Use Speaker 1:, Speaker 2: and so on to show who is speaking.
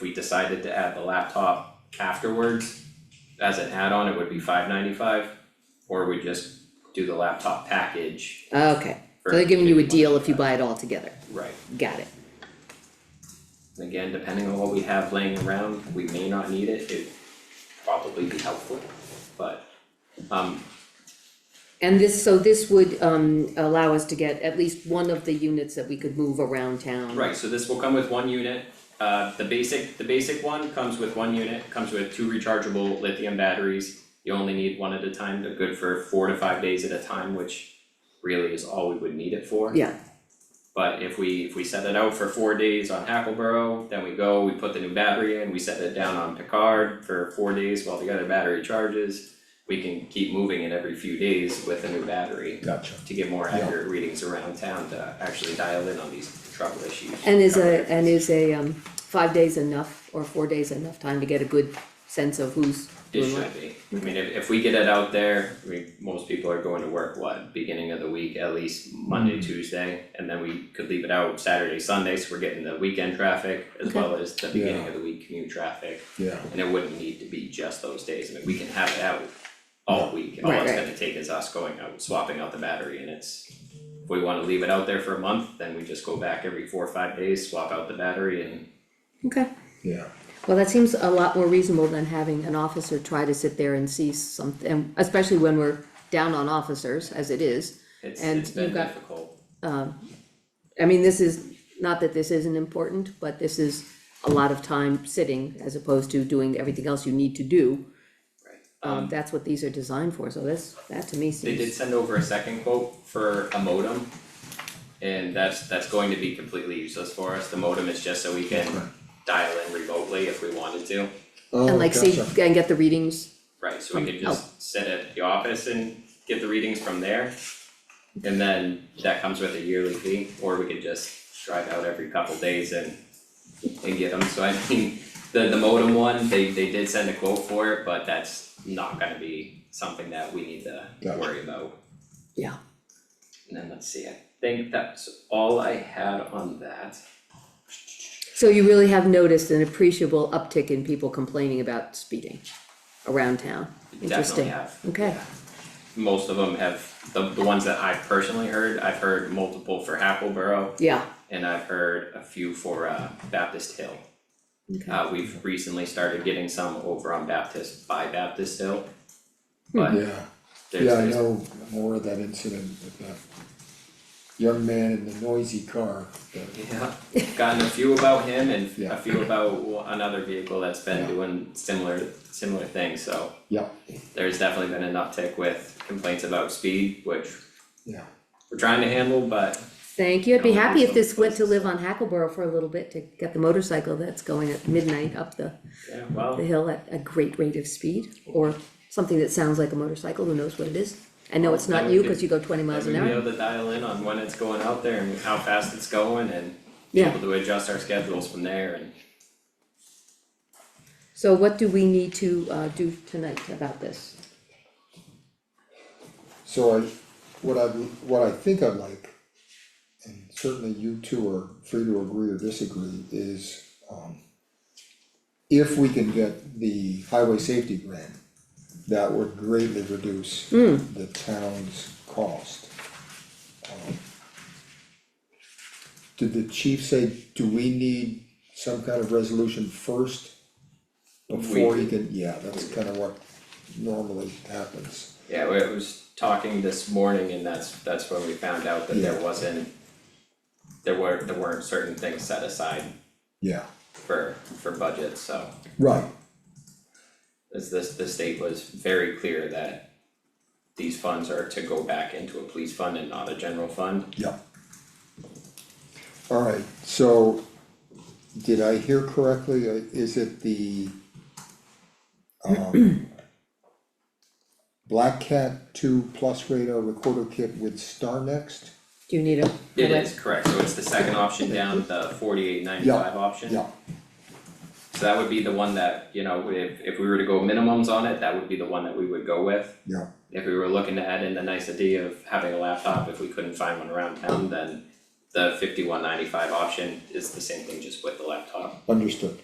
Speaker 1: we decided to add the laptop afterwards as an add-on, it would be five ninety-five, or we just do the laptop package
Speaker 2: Okay,
Speaker 1: for.
Speaker 2: so they're giving you a
Speaker 1: 51.
Speaker 2: deal if you buy it all together,
Speaker 1: Right,
Speaker 2: got it,
Speaker 1: And again, depending on what we have laying around, we may not need it, it'd probably be helpful, but um
Speaker 2: and this, so this would um allow us to get at least one of the units that we could move around town.
Speaker 1: Right, so this will come with one unit, uh, the basic, the basic one comes with one unit, comes with two rechargeable lithium batteries. You only need one at a time, they're good for four to five days at a time, which really is all we would need it for.
Speaker 2: Yeah.
Speaker 1: But if we, if we set it out for four days on Hackleboro, then we go, we put the new battery in, we set it down on Picard for four days while the other battery charges. We can keep moving it every few days with a new battery
Speaker 3: Gotcha.
Speaker 1: to get more
Speaker 3: Yeah.
Speaker 1: accurate readings around town to actually dial in on these trouble issues.
Speaker 2: And is a, and is a um five days enough or four days enough time to get a good sense of who's
Speaker 1: It
Speaker 2: doing what?
Speaker 1: should be, I mean, if if we get it out there, I mean, most people are going to work, what, beginning of the week, at least
Speaker 2: Mm-hmm.
Speaker 1: Monday, Tuesday, and then we could leave it out Saturday, Sunday, so we're getting the weekend traffic as
Speaker 2: Okay.
Speaker 1: well as the beginning
Speaker 3: Yeah.
Speaker 1: of the week commute traffic,
Speaker 3: Yeah,
Speaker 1: and it wouldn't need to be just those days, I mean, we can have it out all week, all
Speaker 2: Right,
Speaker 1: it's
Speaker 2: right.
Speaker 1: gonna take is us going out, swapping out the battery, and it's if we wanna leave it out there for a month, then we just go back every four or five days, swap out the battery and
Speaker 2: Okay,
Speaker 3: yeah,
Speaker 2: well, that seems a lot more reasonable than having an officer try to sit there and see something, especially when we're down on officers as it is.
Speaker 1: it's
Speaker 2: And
Speaker 1: it's been
Speaker 2: you've got-
Speaker 1: difficult.
Speaker 2: I mean, this is, not that this isn't important, but this is a lot of time sitting as opposed to doing everything else you need to do. Um, that's what these are designed for, so that's, that to me
Speaker 1: They did
Speaker 2: seems,
Speaker 1: send over a second quote for a modem. And that's, that's going to be completely useless for us, the modem is just so we can dial in remotely if we wanted to.
Speaker 3: oh,
Speaker 2: and like see,
Speaker 3: gotcha,
Speaker 2: and get the readings,
Speaker 1: Right, so we
Speaker 2: From-
Speaker 1: could just sit at the office and get the readings from there. And then that comes with a yearly fee, or we could just drive out every couple days and and get them, so I mean, the the modem one, they they did send a quote for it, but that's not gonna be something that we need to
Speaker 3: Gotcha.
Speaker 1: worry about.
Speaker 2: yeah.
Speaker 1: And then let's see, I think that's all I had on that.
Speaker 2: So you really have noticed an appreciable uptick in people complaining about speeding around town,
Speaker 1: Definitely
Speaker 2: interesting,
Speaker 1: have.
Speaker 2: okay,
Speaker 1: yeah. Most of them have, the the ones that I've personally heard, I've heard multiple for Hackleboro
Speaker 2: yeah,
Speaker 1: and I've heard a few for uh Baptist Hill.
Speaker 2: okay,
Speaker 1: Uh we've recently started getting some over on Baptist by Baptist Hill.
Speaker 3: Hmm. yeah,
Speaker 1: But
Speaker 3: yeah,
Speaker 1: there's
Speaker 3: I
Speaker 1: there's,
Speaker 3: know more of that incident with that young man in the noisy car, that-
Speaker 1: yeah, gotten a few about him and
Speaker 3: Yeah.
Speaker 1: a few about another vehicle that's been
Speaker 3: Yeah.
Speaker 1: doing similar similar things, so.
Speaker 3: yeah,
Speaker 1: there's definitely been an uptick with complaints about speed, which
Speaker 3: yeah.
Speaker 1: we're trying to handle, but
Speaker 2: thank you, I'd be
Speaker 1: Yeah,
Speaker 2: happy if
Speaker 1: some
Speaker 2: this went to
Speaker 1: places.
Speaker 2: live on Hackleboro for a little bit to get the motorcycle that's going at midnight up the
Speaker 1: yeah,
Speaker 2: the
Speaker 1: well,
Speaker 2: hill at a great rate of speed, or something that sounds like a motorcycle, who knows what it is? I know it's
Speaker 1: Well,
Speaker 2: not
Speaker 1: that
Speaker 2: you,
Speaker 1: would
Speaker 2: cause you go twenty
Speaker 1: then
Speaker 2: miles
Speaker 1: we'll
Speaker 2: an
Speaker 1: be
Speaker 2: hour,
Speaker 1: able to dial in on when it's going out there and how fast it's going and be
Speaker 2: Yeah.
Speaker 1: able to adjust our schedules from there and
Speaker 2: so what do we need to uh do tonight about this?
Speaker 3: So I, what I, what I think I'd like, and certainly you two are free to agree or disagree, is, um, if we can get the highway safety grant, that would greatly reduce the town's cost. Um, Did the chief say, do we need some kind of resolution first? Before he can, yeah, that's kind of what normally happens.
Speaker 1: yeah, we I was talking this morning and that's that's when we found out that there
Speaker 3: Yeah.
Speaker 1: wasn't there were, there weren't certain things set aside
Speaker 3: Yeah,
Speaker 1: for for budget, so
Speaker 3: right,
Speaker 1: as this, the state was very clear that these funds are to go back into a police fund and not a general fund.
Speaker 3: yeah. Alright, so, did I hear correctly, Uh, is it the, um, Black Cat two plus radar recorder kit with Star Next?
Speaker 2: Do you need a?
Speaker 1: It is, correct, so it's the second option down, the forty-eight ninety-five option.
Speaker 3: Yeah,
Speaker 1: So that would be the one that, you know, if if we were to go minimums on it, that would be the one that we would go with.
Speaker 3: yeah,
Speaker 1: If we were looking to add in the nicety of having a laptop, if we couldn't find one around town, then the fifty-one ninety-five option is the same thing, just with the laptop.
Speaker 3: understood.